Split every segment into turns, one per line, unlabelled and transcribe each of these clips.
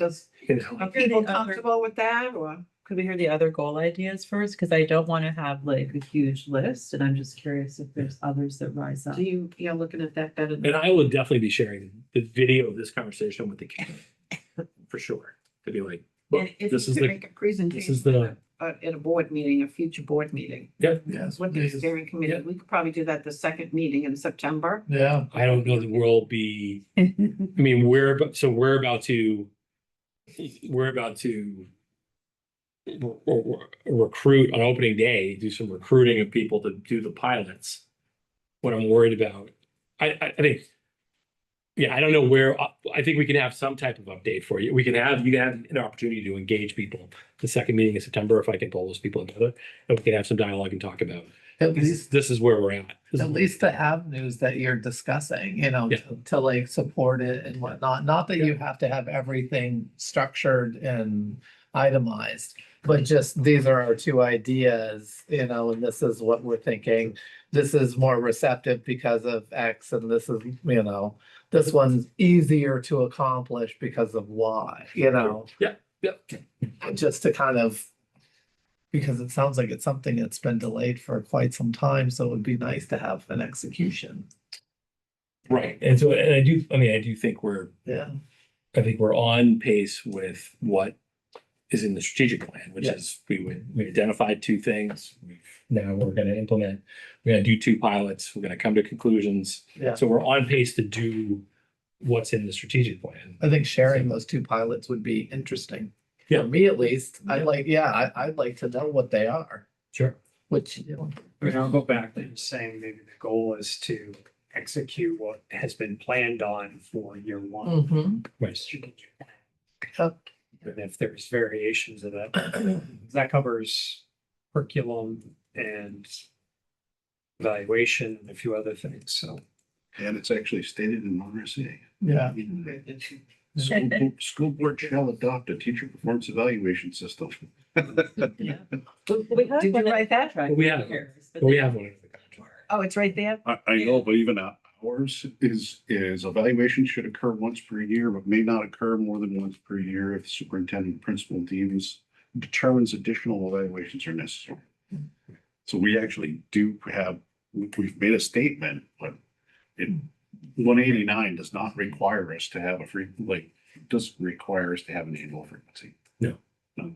Does,
you know,
are
Okay,
people
the other-
comfortable with that or?
Could we hear the other goal ideas first? Cause I don't wanna have like a huge list and I'm just curious if there's others that rise up.
Do you, you're looking at that better?
and I would definitely be sharing the video of this conversation with the camera for sure. To be like, look,
And if
this
you
is
could
the,
make a presentation
is the-
At, at a board meeting, a future board meeting,
yeah,
Yes.
that's what the
please.
steering committee,
yeah.
we could probably do that the second meeting in September.
Yeah.
I don't know that we'll be, I mean, we're, abo- so we're about to, we're about to re- re- recruit on opening day, do some recruiting of people to do the pilots. What I'm worried about, I, I, I think, yeah, I don't know where, I- I think we can have some type of update for you. We can have, you can have an opportunity to engage people. The second meeting in September, if I can pull those people together, and we can have some dialogue and talk about,
At
this,
least,
this is where we're at. This is-
at least the avenues that you're discussing, you know,
Yeah.
to- to like support it and whatnot. Not that you have to have everything structured and itemized. But just, these are our two ideas, you know, and this is what we're thinking. This is more receptive because of X and this is, you know, this one's easier to accomplish because of Y, you know?
Yeah, yeah.
just to kind of, because it sounds like it's something that's been delayed for quite some time, so it would be nice to have an execution.
Right, and so, and I do, I mean, I do think we're
Yeah.
I think we're on pace with what is in the strategic plan, which
Yeah.
is we would, we identified two things. We've Now we're gonna implement, we're gonna do two pilots, we're gonna come to conclusions.
Yeah.
So we're on pace to do what's in the strategic plan.
I think sharing those two pilots would be interesting.
Yeah.
For me at least, I
Yeah.
like, yeah, I, I'd like to know what they are,
Sure.
which, you know,
I mean, I'll go back to saying maybe the goal is to execute what has been planned on for year one.
Mm-hmm.
Right.
Yep.
And if there's variations of that, that covers curriculum and evaluation and a few other things, so.
And it's actually stated in RSA.
yeah,
School board- School board shall adopt a teacher performance evaluation system.
We have
Did
one
you
that-
write that right?
We have, we have one. in the contract.
Oh, it's right there?
I, I know, but even ours is, is evaluation should occur once per year, but may not occur more than once per year if superintendent principal deems, determines additional evaluations are necessary. So we actually do have, we- we've made a statement, but it, one eighty-nine does not require us to have a free, like, does require us to have an annual frequency.
No.
No.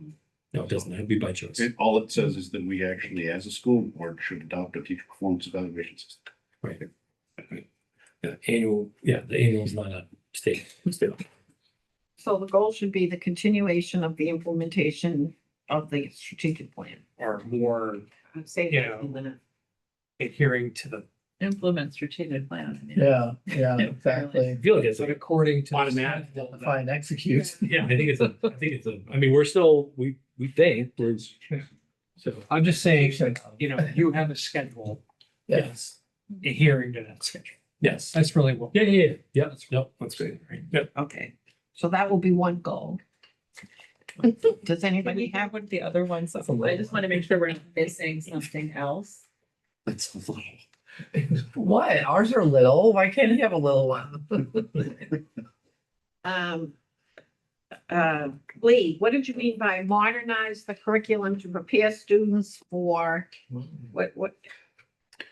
No, it doesn't, it'd be by choice.
It, all it says is that we actually, as a school board, should adopt a teacher performance evaluation system.
Yeah, Annual, yeah, the annual is not a state, still.
So the goal should be the continuation of the implementation of the strategic plan.
Or more
I'm saying
Yeah.
that in the
adhering to the,
Implement strategic plan. I mean.
yeah, yeah, exactly.
I feel like it's
but
like,
according to.
Automatic.
Identify and execute.
yeah, I think it's a, I think it's a, I mean, we're still, we, we think, we're. So.
I'm just saying, like, you know, you have a schedule
Yes,
adhering to that schedule.
Yes.
That's really what.
Yeah, yeah, yeah. Yeah, that's, yep, that's great. Yep.
Okay, so that will be one goal. Does
But we
anybody
have
have?
one of the other ones.
That's a lot.
I just wanna make sure we're not missing something else.
That's a lot.
what, ours are little, why can't you have a little one?
Um. Uh, Lee, what did you mean by modernize the curriculum to prepare students for, what, what?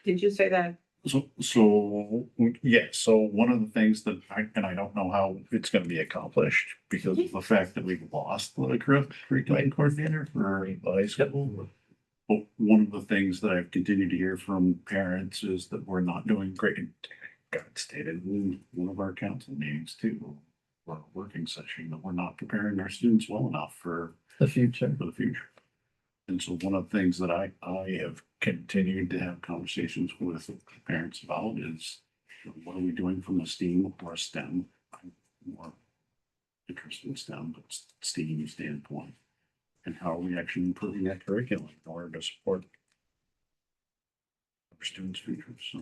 Did you say that?
So, so, yeah, so one of the things that I, and I don't know how it's gonna be accomplished because of the fact that we've lost the curr- curriculum coordinator for high school. But one of the things that I've continued to hear from parents is that we're not doing great. God stated in one of our council meetings too, or a working session, that we're not preparing our students well enough for
The future.
for the future. And so one of the things that I, I have continued to have conversations with parents about is what are we doing from a STEAM or a STEM? I'm More interested in STEM, but STEAM standpoint. And how are we actually improving that curriculum in order to support our students' futures? So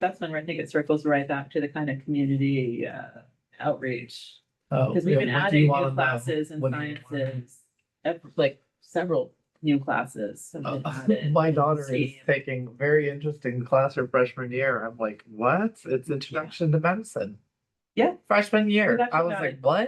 That's when I think it circles right back to the kind of community uh outreach.
Oh,
Because we've been adding new classes and sciences, ev- like several new classes. have been
Uh,
added.
My daughter is
Stadium.
taking a very interesting class her freshman year. I'm like, what? It's introduction to medicine.
Yeah.
Freshman year,
That's
I was
about
like,
it.
what?